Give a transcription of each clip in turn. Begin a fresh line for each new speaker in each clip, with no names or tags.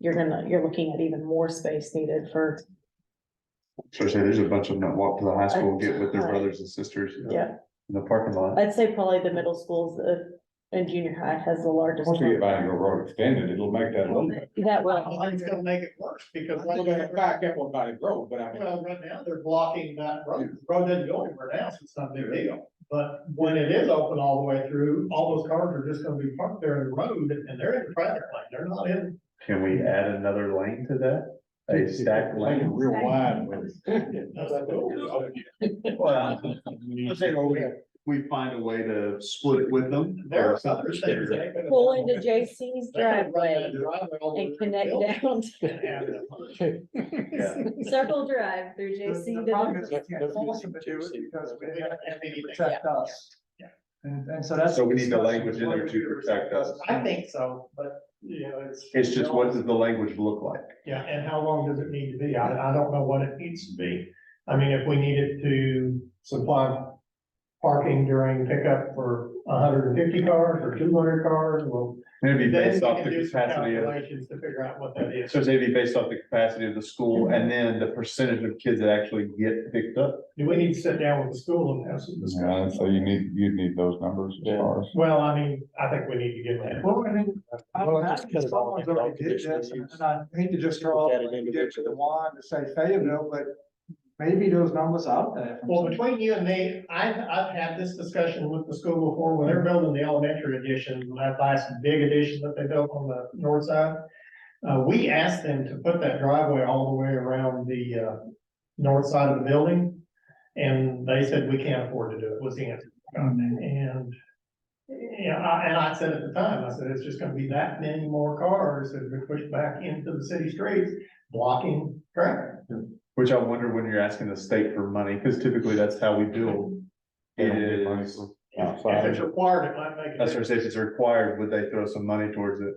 you're gonna, you're looking at even more space needed for,
So say there's a bunch of them that walk to the high school, get with their
Right.
brothers and sisters. you know,
yeah.
In the parking lot.
I'd say probably the middle schools, uh, and junior high has the largest.
Once we get
number.
Vining Grove Road extended, it'll make that a little bit.
That
Well,
will,
it's gonna make it worse because right
It'll make it
now,
back up on Vining Grove, but I mean,
well, right now, they're blocking that road. The Road doesn't go anywhere now, so it's not a big deal. But when it is open all the way through, all those cars are just gonna be parked there in the road and they're in the traffic lane. They're not in.
Can we add another lane to that? A stacked
lane
lane?
real wide. with-
Well, I'm saying, well, we- We find a way to split it with them.
There
or
are other
something.
things. they could-
pull into JC's
they could run that
driveway
driveway all the way
and
to the
connect
building
down, to-
and have it.
Yeah.
circle drive through JC.
The
to
the problem is
the-
we can't force them to do it because we have to protect
Yeah.
us. And, and so that's.
So we need the language in there to protect us.
I think so, but, you know, it's.
It's just what does the language look like?
Yeah, and how long does it need to be? I, I don't know what it needs to be. I mean, if we needed to supply parking during pickup for hundred and fifty cars or two hundred cars, well.
It'd be
then we
based off the
can do some
capacity of,
Calculations to figure out what that is.
so it'd be based off the capacity of the school and then the percentage of kids that actually get picked up.
Do we need to sit down with the school and have some
Yeah,
discussion?
So you need, you need those numbers as far as.
Well, I mean, I think we need to get that.
Well, I mean, I
Well,
don't know,
that's kind of all
someone's already did
conditional
this, and
use.
I hate to just throw
Look
all
at it
the dick to the
individually.
wand to say Fayetteville, but maybe those numbers out there. from
Well,
some-
between you and me, I've, I've had this discussion with the school before, when they're building the elementary addition, that last big addition that they built on the north side. Uh, we asked them to put that driveway all the way around the, uh, north side of the building. And they said, we can't afford to do it, was the answer. And, yeah, I- and I said at the time, I said, it's just gonna be that many more cars that are pushed back into the city streets, blocking traffic.
Which I wonder when you're asking the state for money, because typically that's how we build. Is
If if it's required, it might make. a
That's what I say, if it's required, would they throw some money towards it?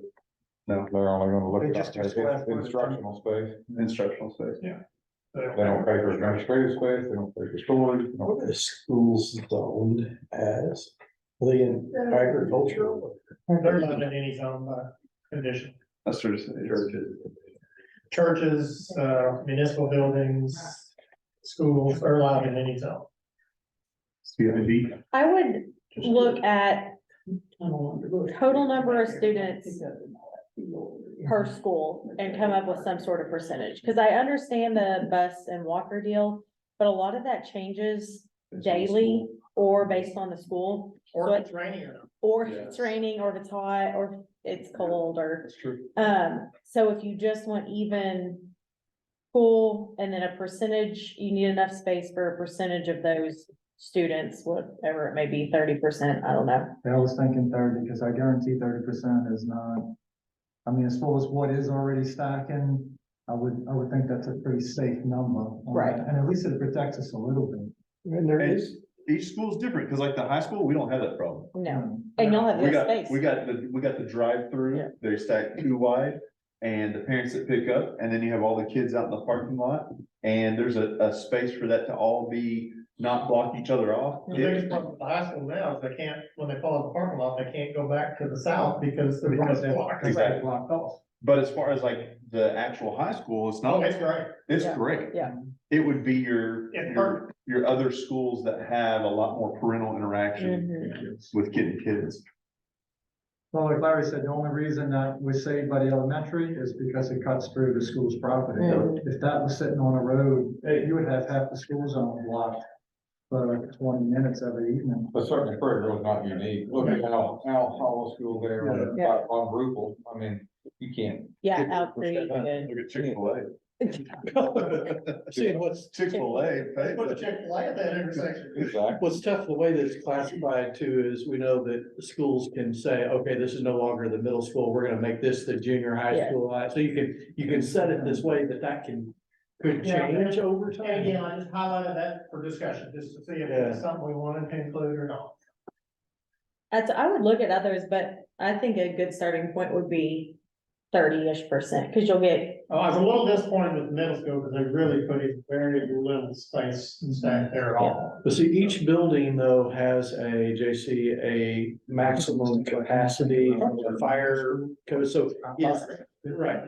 No,
They're only gonna
They
look
just do square
at
footage.
instructional space.
instructional space.
They don't pay for administrative space, they don't pay for storage. they don't-
What is schools zoned as? Are they in agricultural?
They're not in any zone by condition.
That's what I say.
Churches, uh, municipal buildings, schools are allowed in any zone.
CID.
I would look at total number of students per school and come up with some sort of percentage, because I understand the bus and walker deal, but a lot of that changes daily or based on the school,
Or if it's raining or not.
or if it's raining, or if it's hot, or if it's cold, or,
That's true.
um, so if you just want even pool and then a percentage, you need enough space for a percentage of those students, whatever it may be, thirty percent, I don't know.
I was thinking thirty, because I guarantee thirty percent is not, I mean, as far as what is already stacking, I would, I would think that's a pretty safe number. on that.
Right.
And at least it protects us a little bit.
And there
And
is,
each school's different, because like the high school, we don't have that problem.
No, and y'all have
We
less
got,
space.
we got the, we got the
Yeah.
drive-through, they stack two wide, and the parents that pick up, and then you have all the kids out in the parking lot. And there's a, a space for that to all be, not block each other off.
The biggest problem with the high school now is they can't, when they pull out the parking lot, they can't go back to the south because the road is blocked.
Because
Exactly.
they're blocked off.
But as far as like the actual high school, it's
Oh,
not,
it's great.
it's
Yeah,
great.
yeah.
It would be your,
It's
your, your other schools that have a lot more parental interaction
Mhm.
with getting kids.
Well, like Larry said, the only reason that we're saved by the elementary is because it cuts through the school's property.
Mm.
Mm-hmm.
If that was sitting on a road, eh, you would have half the school zone blocked for twenty minutes every evening.
But certainly Prairie Grove is not unique. Look at how, how Hollow School there on,
Yeah.
on Rupel. I mean, you can't.
Yeah, out there, you could.
Look at Chick-fil-A.
seeing what's,
Chick-fil-A.
They put a
hey,
Chick-fil-A at that intersection.
Exactly.
what's tough, the way that it's classified too, is we know that the schools can say, okay, this is no longer the middle school, we're gonna make this the junior high
Yeah.
school. high." So you can, you can set it this way that that can, could
Yeah.
change over
And
time.
again, I just highlighted that for discussion, just to see if
Yeah.
it's something we wanted to include or not.
That's, I would look at others, but I think a good starting point would be thirty-ish percent, cause you'll get,
Oh, I was a little disappointed with middle school because they really put in very little space stack there at all.
But see, each building though has a JC, a maximum capacity, for the fire code, so. Yes, right.